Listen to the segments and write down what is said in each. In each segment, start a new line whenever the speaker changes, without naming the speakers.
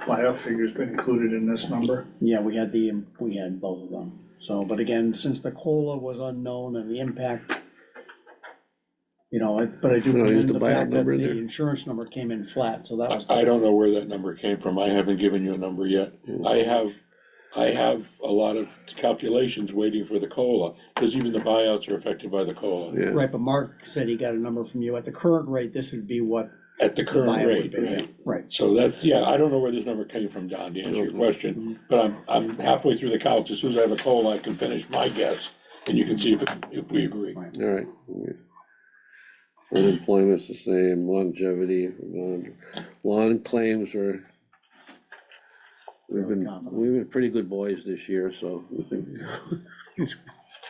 Playoff figure's been included in this number?
Yeah, we had the, we had both of them, so, but again, since the COLA was unknown and the impact, you know, I- but I do
No, use
commend
the
the
buyout
fact that
number in
the
there.
insurance number came in flat, so that was.
I, I don't know where that number came from, I haven't given you a number yet. I have, I have a lot of calculations waiting for the COLA, because even the buyouts are affected by the COLA,
Yeah,
Right, but Mark said he got a number from you, at the current rate, this would be what
at the
the
current
buyout would
rate,
be, yeah,
right?
right,
So that's, yeah, I don't know where this number came from, Don, to answer your question, but I'm, I'm halfway through the couch, as soon as I have a COLA, I can finish my guess, and you can see if, if we agree.
all right. Unemployment's the same, longevity, lawn, lawn claims are. We've
Really
been,
confident.
we've been pretty good boys this year, so. we think-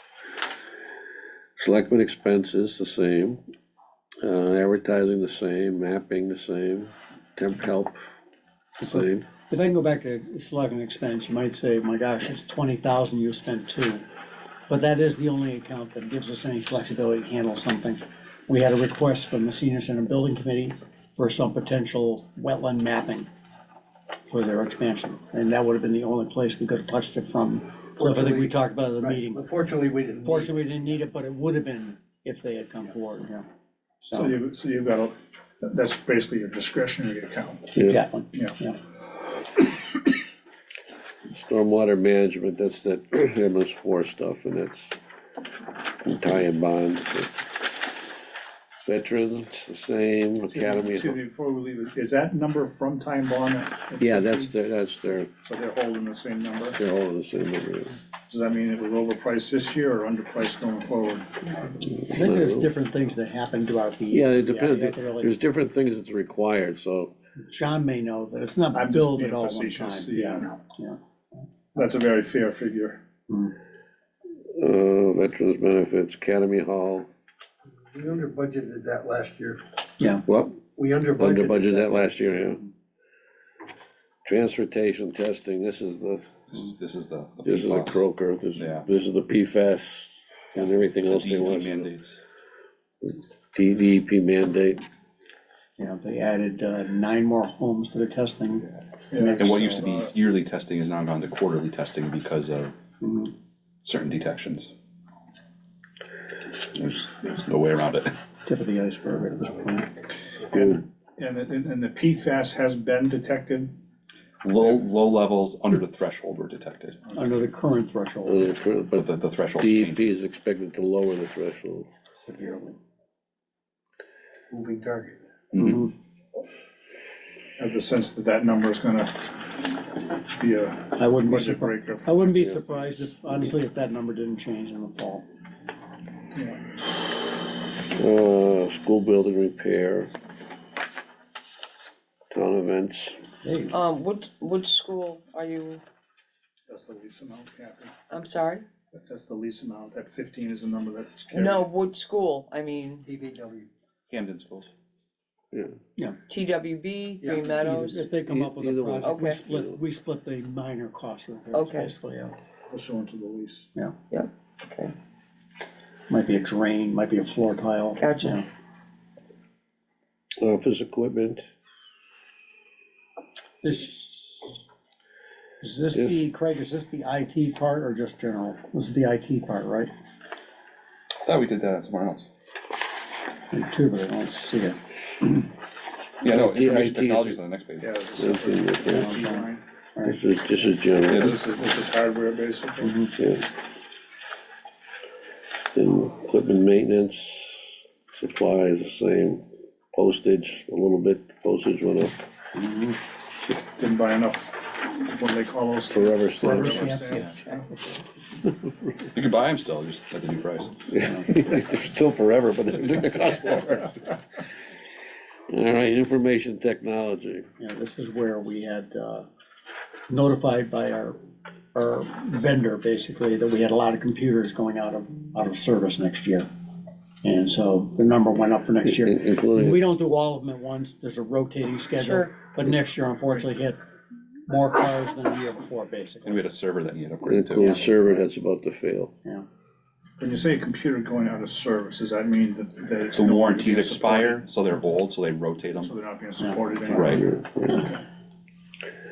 Selectmen expenses the same, uh, advertising the same, mapping the same, temp help, the same.
If I can go back to selecting expense, you might say, my gosh, it's twenty thousand, you spent two. But that is the only account that gives us any flexibility to handle something. We had a request from the senior center building committee for some potential wetland mapping for their expansion, and that would have been the only place we could have touched it from. So I think we talked about it at the meeting.
Unfortunately, we didn't.
Fortunately, we didn't need it, but it would have been if they had come forward, yeah.
So
So,
you, so you've got, a that's basically your discretionary account.
Yeah.
exactly,
Yeah.
yeah.
Stormwater management, that's that MS four stuff, and that's tie and bond. Veterans, the same, academy,
Excuse me, before we leave, is that number from Time Bond? at
yeah,
50?
that's their, that's their,
So they're holding the same number?
they're all the same number.
Does that mean it was overpriced this year or underpriced going forward?
I think there's different things that happen throughout the
Yeah,
year.
it
you have
depends,
to really-
there's different things that's required, so,
John may know that it's not
I'm just
billed
being
at all one time,
facetious,
yeah, yeah.
That's a very fair figure.
uh, veterans benefits, academy hall,
We under budgeted that last year.
well,
We under budgeted.
under budgeted that last year, yeah. Transportation testing, this is the,
This is, this is the. the
this is the
PFAS,
croaker, this,
Yeah.
this is the PFAS, and everything
the E
else they
DEP
want.
Mandates.
DEP mandate,
You know, they added uh, nine more homes to the testing.
And what used to be yearly testing has now gone to quarterly testing because of
Mhm.
certain detections. There's, there's no way around it.
Tip of the iceberg at this point.
and
uh, And, it- and and the PFAS has been detected?
Low, low levels under the threshold were detected,
Under the current threshold
uh, cr- but
but the, the threshold
DEP
changed.
is expected to lower the threshold.
severely.
Moving target.
Mm-hmm.
mm-hmm.
Have the sense that that number is gonna be a
I wouldn't be
budget
surprised,
breaker?
I wouldn't be surprised if, honestly, if that number didn't change in the fall.
Uh, school building repair. Town events,
Um, what, what school are you,
That's the least amount, Kathy.
I'm sorry?
That's the least amount. That fifteen is the number that's carried.
No, what school, I mean,
TVW.
Camden schools.
TWB,
Yeah,
Green Meadows?
If they come up with a
Either one.
project, we
Okay.
split, we split the minor cost repairs,
Okay.
basically, yeah.
Pursuant to the lease.
Okay,
Might be a drain, might be a floor tile.
Gotcha.
yeah.
office equipment,
This, is this the, Craig, is this the IT part or just general? This is the IT part, right?
Thought we did that somewhere else.
I do, but I don't see it.
Yeah, no,
The IT
information
is-
technology is on the next page.
Yeah, it's a
That's in
separate
there,
fee line.
this is, this is general,
Yeah.
This is, this is hardware basically.
yeah. Then equipment maintenance, supplies the same, postage, a little bit, postage went up,
Didn't buy enough, what do they call those?
forever stamps.
Forever
stamps.
stamps.
You can buy them still, just at the new price.
Still forever, but they're gonna cost more. All right, information technology,
Yeah, this is where we had uh, notified by our, our vendor, basically, that we had a lot of computers going out of, out of service next year. And so the number went up for next
in-
year.
including.
We don't do all of them at once, there's a rotating schedule,
Sure.
but next year unfortunately hit more cars than the year before,
And
basically.
we had a server that needed upgraded
Include
too.
server that's about to fail.
When you say computer going out of service, does that mean that, that it's?
The
no longer
warranties
being supported?
expire, so they're old, so they rotate them.
So they're not being supported anymore?
Right.
Yeah, yeah.